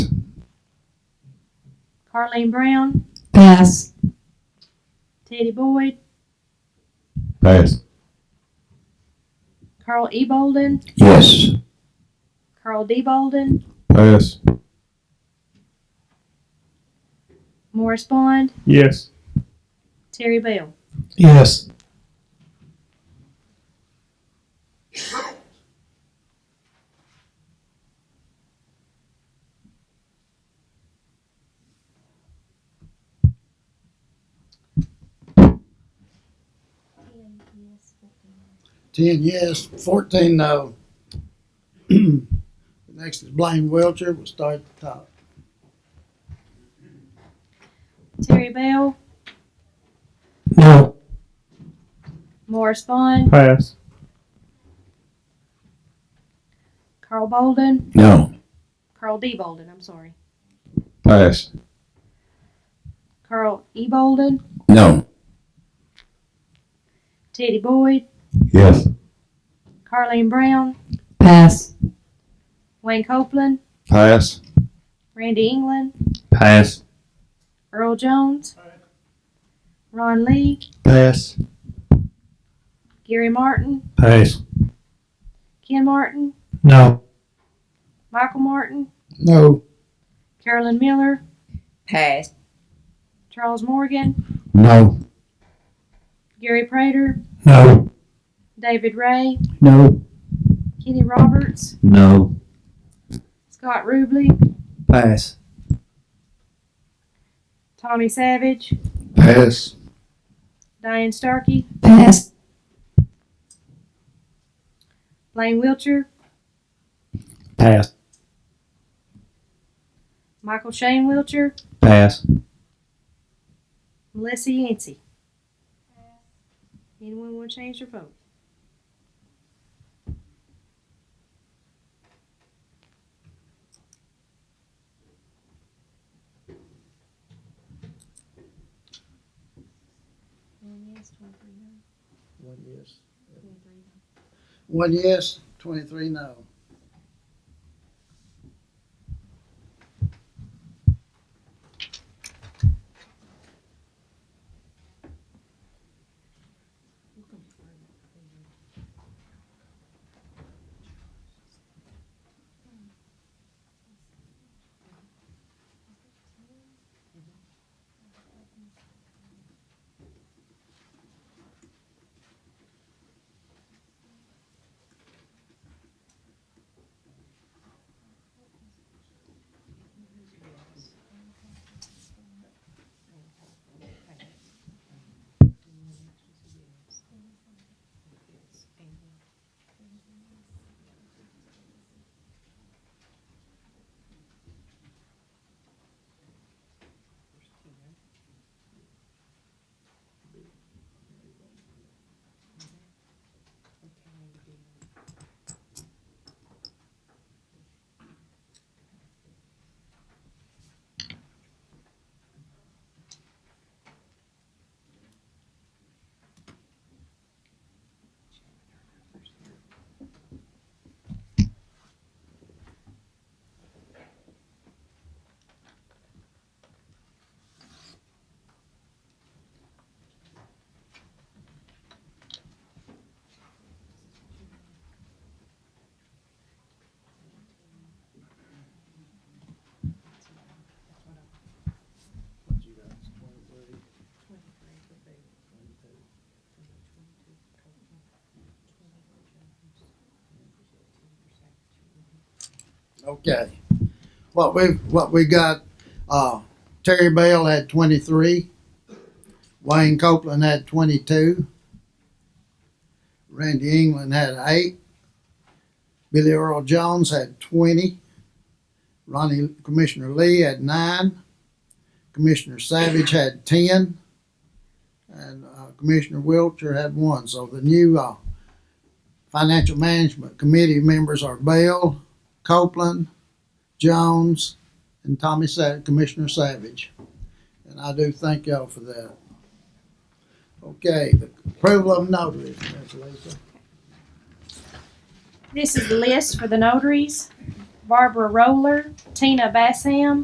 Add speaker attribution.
Speaker 1: Carleen Brown,
Speaker 2: Pass.
Speaker 1: Teddy Boyd,
Speaker 3: Pass.
Speaker 1: Carl E. Bolden,
Speaker 3: Yes.
Speaker 1: Carl D. Bolden,
Speaker 3: Pass.
Speaker 1: Morris Bond,
Speaker 3: Yes.
Speaker 1: Terry Bell.
Speaker 3: Yes.
Speaker 4: Ten yes, fourteen no. Next is Blaine Wiltshire, we'll start at the top.
Speaker 1: Terry Bell,
Speaker 3: No.
Speaker 1: Morris Bond,
Speaker 3: Pass.
Speaker 1: Carl Bolden,
Speaker 3: No.
Speaker 1: Carl D. Bolden, I'm sorry.
Speaker 3: Pass.
Speaker 1: Carl E. Bolden,
Speaker 3: No.
Speaker 1: Teddy Boyd,
Speaker 3: Yes.
Speaker 1: Carleen Brown,
Speaker 2: Pass.
Speaker 1: Wayne Copeland,
Speaker 3: Pass.
Speaker 1: Randy England,
Speaker 3: Pass.
Speaker 1: Earl Jones, Ron Lee,
Speaker 3: Pass.
Speaker 1: Gary Martin,
Speaker 3: Pass.
Speaker 1: Ken Martin,
Speaker 3: No.
Speaker 1: Michael Martin,
Speaker 4: No.
Speaker 1: Carolyn Miller,
Speaker 2: Pass.
Speaker 1: Charles Morgan,
Speaker 3: No.
Speaker 1: Gary Prater,
Speaker 3: No.
Speaker 1: David Ray,
Speaker 3: No.
Speaker 1: Kenny Roberts,
Speaker 3: No.
Speaker 1: Scott Rubley,
Speaker 3: Pass.
Speaker 1: Tommy Savage,
Speaker 3: Pass.
Speaker 1: Diane Starkey,
Speaker 2: Pass.
Speaker 1: Blaine Wiltshire,
Speaker 3: Pass.
Speaker 1: Michael Shane Wiltshire,
Speaker 3: Pass.
Speaker 1: Melissa Yancey. Anyone want to change their vote?
Speaker 4: One yes. One yes, twenty-three no. What you got, twenty-three? Okay. What we, what we got, uh, Terry Bell had twenty-three. Wayne Copeland had twenty-two. Randy England had eight. Billy Earl Jones had twenty. Ronnie, Commissioner Lee had nine. Commissioner Savage had ten, and uh, Commissioner Wiltshire had one. So the new uh, Financial Management Committee members are Bell, Copeland, Jones, and Tommy Sa- Commissioner Savage. And I do thank y'all for that. Okay, the approval of notaries, Miss Lisa.
Speaker 1: This is the list for the notaries. Barbara Roller, Tina Bassam,